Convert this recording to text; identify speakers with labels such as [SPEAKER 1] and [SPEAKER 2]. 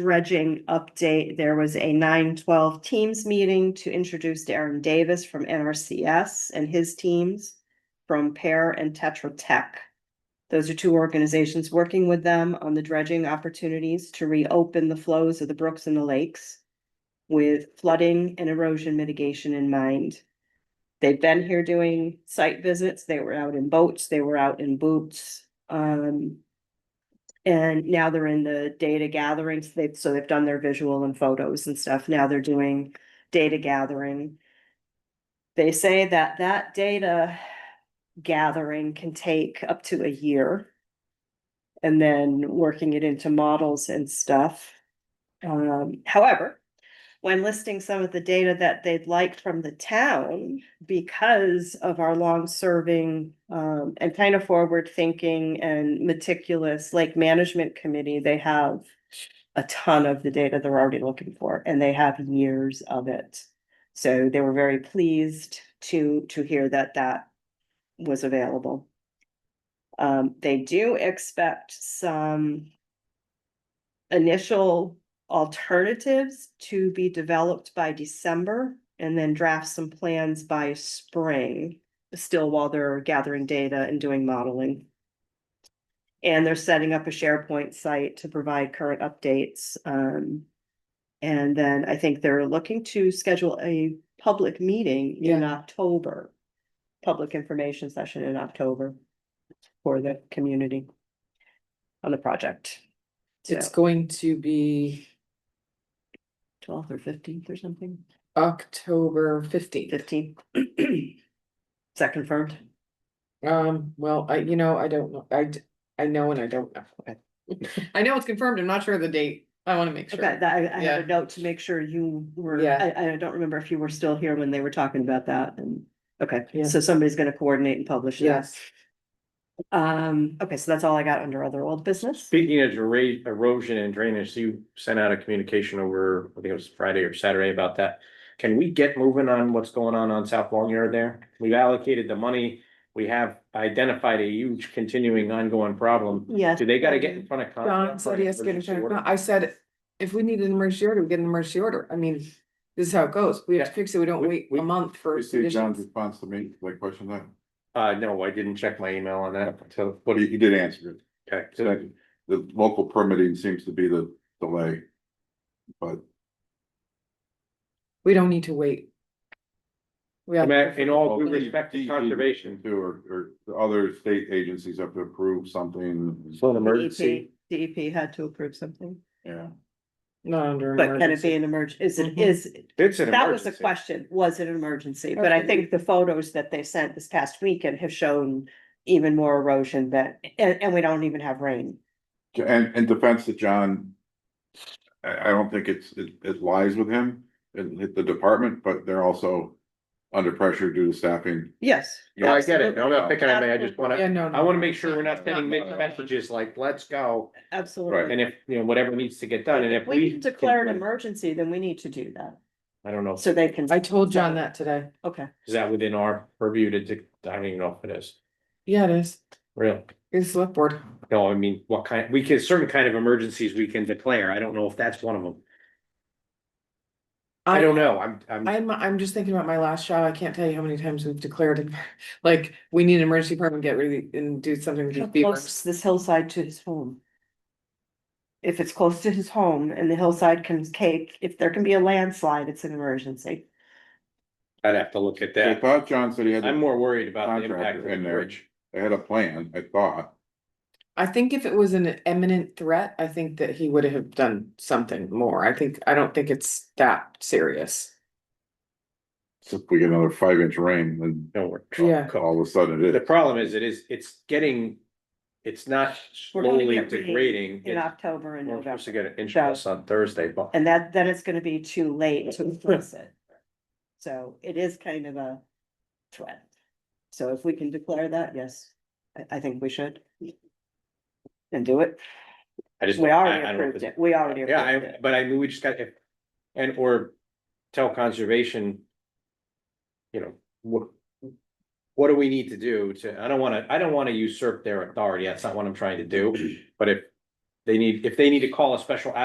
[SPEAKER 1] dredging update, there was a nine twelve teams meeting to introduce Darren Davis from NRCS and his teams from Pear and Tetra Tech. Those are two organizations working with them on the dredging opportunities to reopen the flows of the brooks and the lakes with flooding and erosion mitigation in mind. They've been here doing site visits. They were out in boats, they were out in boots. Um, and now they're in the data gathering, so they've, so they've done their visual and photos and stuff, now they're doing data gathering. They say that that data gathering can take up to a year. And then working it into models and stuff. Um, however, when listing some of the data that they'd like from the town, because of our long-serving um, and kind of forward-thinking and meticulous lake management committee, they have a ton of the data they're already looking for, and they have years of it. So they were very pleased to, to hear that that was available. Um, they do expect some initial alternatives to be developed by December and then draft some plans by spring, still while they're gathering data and doing modeling. And they're setting up a SharePoint site to provide current updates. um, and then I think they're looking to schedule a public meeting in October, public information session in October for the community on the project.
[SPEAKER 2] It's
[SPEAKER 1] So-
[SPEAKER 2] going to be
[SPEAKER 1] twelfth or fifteenth or something,
[SPEAKER 2] October fifteenth.
[SPEAKER 1] fifteenth. Is that confirmed?
[SPEAKER 2] Um, well, I, you know, I don't know, I, d- I know and I don't know. I- I know it's confirmed, I'm not sure of the date, I wanna make
[SPEAKER 1] Okay,
[SPEAKER 2] sure.
[SPEAKER 1] that, I, I had
[SPEAKER 2] Yeah.
[SPEAKER 1] a note to make sure you were,
[SPEAKER 2] Yeah.
[SPEAKER 1] I, I don't remember if you were still here when they were talking about that and, okay,
[SPEAKER 2] Yeah.
[SPEAKER 1] so somebody's gonna coordinate and publish that.
[SPEAKER 2] Yes,
[SPEAKER 1] Um, okay, so that's all I got under other old business.
[SPEAKER 3] Speaking of ero- erosion and drainage, you sent out a communication over, I think it was Friday or Saturday about that. Can we get moving on what's going on on South Long Yard there? We've allocated the money. We have identified a huge continuing ongoing problem.
[SPEAKER 1] Yes. E
[SPEAKER 3] Do they gotta get in front of? Concom
[SPEAKER 2] Don
[SPEAKER 3] for
[SPEAKER 2] said
[SPEAKER 3] an
[SPEAKER 2] he has to get in
[SPEAKER 3] Uh, emergency
[SPEAKER 2] front of-
[SPEAKER 3] order?
[SPEAKER 2] no, I said, if we need an emergency order, we get an emergency order, I mean, this is how it goes, we have to fix it, we don't
[SPEAKER 3] We-
[SPEAKER 2] wait
[SPEAKER 3] we-
[SPEAKER 2] a month for.
[SPEAKER 4] You see John's
[SPEAKER 2] conditions.
[SPEAKER 4] response to me, like question that,
[SPEAKER 3] Uh, no, I didn't check my email on that until,
[SPEAKER 4] but
[SPEAKER 3] what do
[SPEAKER 4] he,
[SPEAKER 3] you,
[SPEAKER 4] he did answer it.
[SPEAKER 3] okay,
[SPEAKER 4] So
[SPEAKER 3] so-
[SPEAKER 4] that- The local permitting seems to be the delay. But
[SPEAKER 2] We don't need to wait. We
[SPEAKER 3] I
[SPEAKER 2] have,
[SPEAKER 3] mean, in all due
[SPEAKER 4] Well,
[SPEAKER 3] respect to
[SPEAKER 4] DEP
[SPEAKER 3] conservation.
[SPEAKER 4] too, or, or the other state agencies have to approve something.
[SPEAKER 3] So an
[SPEAKER 1] DEP
[SPEAKER 3] emergency,
[SPEAKER 1] DEP E had to approve something,
[SPEAKER 4] Yeah,
[SPEAKER 2] not under
[SPEAKER 1] but can it be
[SPEAKER 2] emergency.
[SPEAKER 1] an emergency? is it,
[SPEAKER 2] Mhm.
[SPEAKER 1] is,
[SPEAKER 3] it's an
[SPEAKER 1] that was the
[SPEAKER 3] emergency.
[SPEAKER 1] question, was it an emergency? But I
[SPEAKER 2] Okay.
[SPEAKER 1] think the photos that they sent this past weekend have shown even more erosion that, and, and we don't even have rain.
[SPEAKER 4] and, and defense to John. I, I don't think it's, it, it lies with him and hit the department, but they're also under pressure due to staffing.
[SPEAKER 1] Yes.
[SPEAKER 3] No, I get it. No, I'm not picking on me. I just
[SPEAKER 2] Yeah,
[SPEAKER 3] wanna,
[SPEAKER 2] no. no.
[SPEAKER 3] I wanna make sure we're not sending
[SPEAKER 2] No, no,
[SPEAKER 3] mixed
[SPEAKER 2] no.
[SPEAKER 3] messages like, let's go.
[SPEAKER 1] Absolutely.
[SPEAKER 3] And if, you know, whatever needs to get done, and if we.
[SPEAKER 1] Declare an emergency, then we need to do that,
[SPEAKER 3] I don't know,
[SPEAKER 1] so they can,
[SPEAKER 2] I told John that today,
[SPEAKER 1] okay,
[SPEAKER 3] is that within our purview to, de- I don't even know if it is,
[SPEAKER 2] yeah, it is,
[SPEAKER 3] real.
[SPEAKER 2] it's select board.
[SPEAKER 3] No, I mean, what kind, we can, certain kind of emergencies we can declare, I don't know if that's one of them. I don't know, I'm, I'm,
[SPEAKER 2] I'm, I'm just thinking about my last job. I can't tell you how many times we've declared, it. like, we need an emergency permit, get rid of, and do something with
[SPEAKER 1] how
[SPEAKER 2] these
[SPEAKER 1] close
[SPEAKER 2] beavers.
[SPEAKER 1] is this hillside to his home? If it's close to his home and the hillside can cake, if there can be a landslide, it's an emergency.
[SPEAKER 3] I'd have to look at
[SPEAKER 4] I
[SPEAKER 3] that,
[SPEAKER 4] thought John said he had,
[SPEAKER 3] I'm
[SPEAKER 4] they
[SPEAKER 3] more worried about the impact of
[SPEAKER 4] Contractor
[SPEAKER 3] the
[SPEAKER 4] in there.
[SPEAKER 3] bridge.
[SPEAKER 4] had a plan, I thought.
[SPEAKER 2] I think if it was an imminent threat, I think that he would have done something more. I think, I don't think it's that serious.
[SPEAKER 4] If we get another five inch rain, then
[SPEAKER 3] No, we're.
[SPEAKER 2] Yeah.
[SPEAKER 4] all of a sudden it
[SPEAKER 3] The
[SPEAKER 4] is.
[SPEAKER 3] problem is, it is, it's getting, it's not
[SPEAKER 1] We're gonna
[SPEAKER 3] slowly
[SPEAKER 1] get rain
[SPEAKER 3] degrading.
[SPEAKER 1] In
[SPEAKER 3] It's-
[SPEAKER 1] October and
[SPEAKER 3] We're supposed to
[SPEAKER 1] November,
[SPEAKER 3] get an inch plus on Thursday, but.
[SPEAKER 1] and that, then it's gonna be too late to address it. So it is kind of a threat. So if we can declare that, yes, I, I think we should. And do it,
[SPEAKER 3] I just.
[SPEAKER 1] we
[SPEAKER 3] I- I
[SPEAKER 1] already
[SPEAKER 3] don't know if
[SPEAKER 1] approved
[SPEAKER 3] it's-
[SPEAKER 1] it, we already
[SPEAKER 3] Yeah,
[SPEAKER 1] approved
[SPEAKER 3] I,
[SPEAKER 1] it,
[SPEAKER 3] but I mean, we just got, if- and or tell conservation. You know, what, what do we need to do to, I don't wanna, I don't wanna usurp their authority, that's not what I'm trying to do, but if. They need, if they need to call a special